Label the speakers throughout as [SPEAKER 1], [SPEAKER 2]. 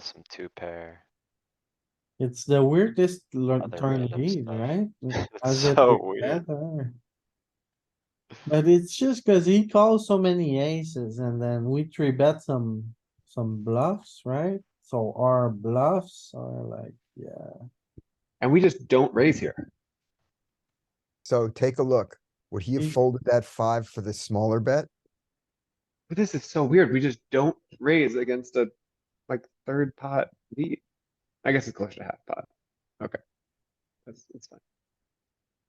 [SPEAKER 1] some two pair.
[SPEAKER 2] It's the weirdest lear-
[SPEAKER 1] Other
[SPEAKER 2] turn
[SPEAKER 1] random
[SPEAKER 2] lead,
[SPEAKER 1] stuff.
[SPEAKER 2] right? As
[SPEAKER 1] It's
[SPEAKER 2] it
[SPEAKER 1] so
[SPEAKER 2] gets
[SPEAKER 1] weird.
[SPEAKER 2] better. But it's just cuz he calls so many aces and then we three bet some, some bluffs, right? So our bluffs are like, yeah,
[SPEAKER 3] And we just don't raise here.
[SPEAKER 4] So take a look. Would he
[SPEAKER 3] Mm.
[SPEAKER 2] He-
[SPEAKER 4] have folded that five for the smaller bet?
[SPEAKER 3] But this is so weird. We just don't raise against a like third pot lead. I guess it's close to half pot. Okay. That's, that's fine.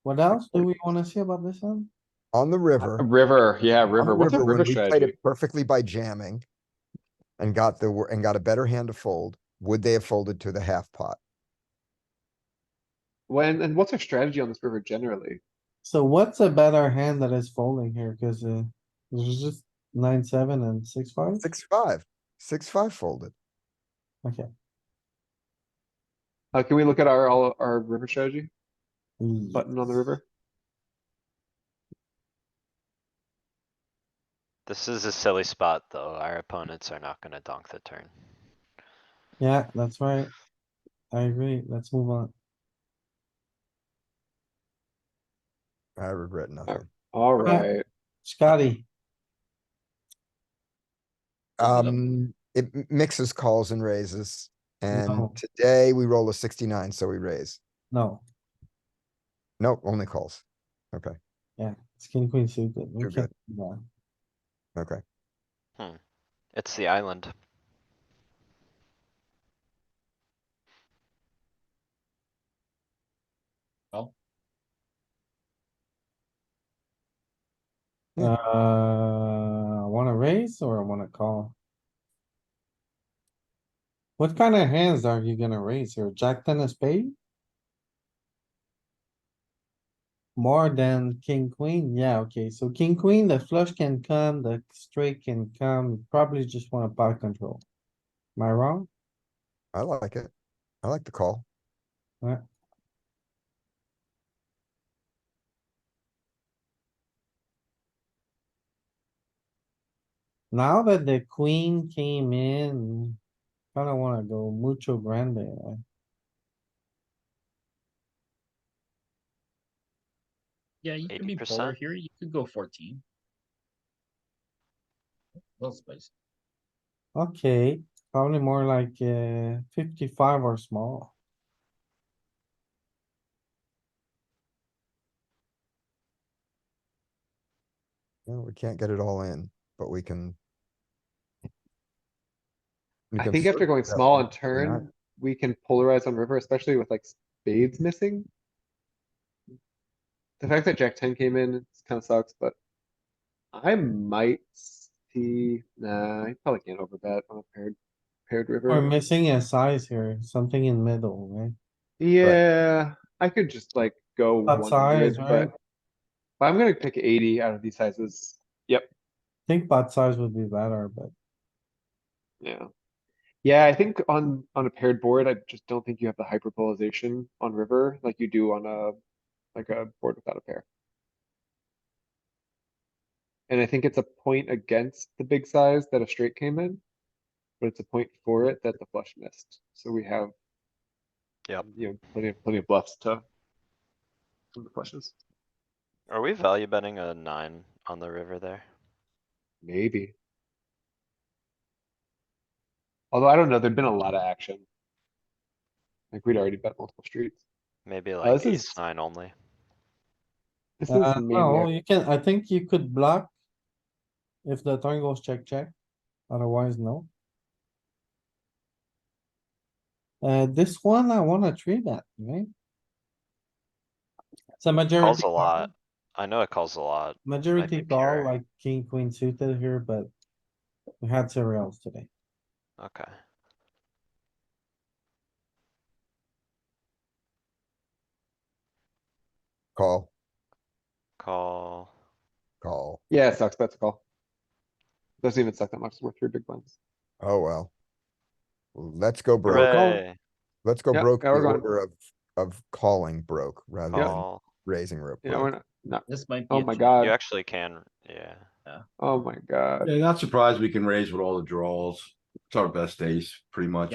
[SPEAKER 2] what else do we wanna see about this one?
[SPEAKER 4] On the river. on
[SPEAKER 3] River, yeah,
[SPEAKER 4] the
[SPEAKER 3] river. What's a
[SPEAKER 4] when
[SPEAKER 3] river
[SPEAKER 4] we played
[SPEAKER 3] strategy?
[SPEAKER 4] it Perfectly by jamming. And got the, wor- and got a better hand to fold. Would they have folded to the half pot?
[SPEAKER 3] When, and what's our strategy on this river generally?
[SPEAKER 2] So what's a better hand that is folding here? Cuz uh, there's just nine, seven and six, five.
[SPEAKER 4] Six, five. Six, five folded.
[SPEAKER 3] Uh, can we look at our, all our river strategy
[SPEAKER 2] Mm.
[SPEAKER 3] button on the river?
[SPEAKER 1] This is a silly spot, though. Our opponents are not gonna donk the turn.
[SPEAKER 2] Yeah, that's right. I agree. Let's move on.
[SPEAKER 4] I regret
[SPEAKER 3] Oh,
[SPEAKER 4] nothing.
[SPEAKER 3] Alright,
[SPEAKER 2] Scotty,
[SPEAKER 1] Open it up.
[SPEAKER 4] Um, it m- mixes calls and raises. And
[SPEAKER 2] No.
[SPEAKER 4] today we roll a sixty-nine, so we raise.
[SPEAKER 2] no,
[SPEAKER 4] Nope, only calls. Okay,
[SPEAKER 2] yeah, it's king, queen suited. We
[SPEAKER 4] You're
[SPEAKER 2] can't do that.
[SPEAKER 4] okay.
[SPEAKER 1] It's the island.
[SPEAKER 4] Yeah.
[SPEAKER 2] Uh, wanna raise or wanna call? What kind of hands are you gonna raise here? Jack ten of spade? More than king, queen? Yeah, okay, so king, queen, the flush can come, the straight can come, probably just wanna pot control. Am I wrong?
[SPEAKER 4] I like it. I like the call.
[SPEAKER 2] Now that the queen came in, kinda wanna go mucho grande. uh,
[SPEAKER 5] Yeah, you could be polar
[SPEAKER 1] 80%.
[SPEAKER 5] here. You could go fourteen. Little spicy.
[SPEAKER 2] Okay, probably more like uh fifty-five or small.
[SPEAKER 4] Yeah, we can't get it all in, but we can. we
[SPEAKER 3] I
[SPEAKER 4] can
[SPEAKER 3] think after
[SPEAKER 4] flirt
[SPEAKER 3] going
[SPEAKER 4] with that
[SPEAKER 3] small
[SPEAKER 4] one,
[SPEAKER 3] on
[SPEAKER 4] why not?
[SPEAKER 3] turn, we can polarize on river, especially with like spades missing. The fact that jack ten came in, it kinda sucks, but I might see, nah, I probably can't overbet on a paired, paired
[SPEAKER 2] We're
[SPEAKER 3] river.
[SPEAKER 2] missing a size here, something in middle, right?
[SPEAKER 3] Yeah, I could just like go
[SPEAKER 2] That
[SPEAKER 3] one
[SPEAKER 2] size,
[SPEAKER 3] big,
[SPEAKER 2] right?
[SPEAKER 3] but but I'm gonna pick eighty out of these sizes.
[SPEAKER 2] Think pot size would be better, but
[SPEAKER 3] Yeah. Yeah, I think on, on a paired board, I just don't think you have the hyperpolarization on river like you do on a, like a board without a pair. And I think it's a point against the big size that a straight came in, but it's a point for it that the flush missed. So we have,
[SPEAKER 1] Yep.
[SPEAKER 3] you know, plenty of, plenty of bluffs to from the flushes.
[SPEAKER 1] Are we value betting a nine on the river there?
[SPEAKER 3] Maybe. Although I don't know, there'd been a lot of action. Like we'd already bet multiple streets.
[SPEAKER 1] Maybe like
[SPEAKER 3] Oh, this
[SPEAKER 1] ace
[SPEAKER 3] is-
[SPEAKER 1] nine only.
[SPEAKER 3] This is
[SPEAKER 2] uh, no,
[SPEAKER 3] maniac.
[SPEAKER 2] you can, I think you could block. If the turn goes check, check, otherwise no. Uh, this one, I wanna three bet, right? It's a majority.
[SPEAKER 1] Calls a
[SPEAKER 2] call.
[SPEAKER 1] lot. I know it calls a lot.
[SPEAKER 2] Majority
[SPEAKER 1] be
[SPEAKER 2] call
[SPEAKER 1] pure.
[SPEAKER 2] like king, queen suited here, but we had cereals today.
[SPEAKER 1] Okay.
[SPEAKER 4] Call,
[SPEAKER 1] Call.
[SPEAKER 4] call.
[SPEAKER 3] Yeah, it sucks, that's a call. Doesn't even suck that much, we're three big blinds.
[SPEAKER 4] Oh, well. Let's go broke.
[SPEAKER 1] Hooray.
[SPEAKER 4] Let's go
[SPEAKER 3] Yep,
[SPEAKER 4] broke. The
[SPEAKER 3] now we're going.
[SPEAKER 4] order of, of calling broke rather than
[SPEAKER 1] Call.
[SPEAKER 4] raising rip.
[SPEAKER 3] Yeah,
[SPEAKER 4] broke.
[SPEAKER 3] we're not, not,
[SPEAKER 5] This might be.
[SPEAKER 3] oh
[SPEAKER 5] a
[SPEAKER 3] my
[SPEAKER 5] jam.
[SPEAKER 1] You
[SPEAKER 3] god,
[SPEAKER 1] actually can, yeah.
[SPEAKER 3] oh my god.
[SPEAKER 6] Yeah, not surprised we can raise with all the draws. It's our best ace, pretty much.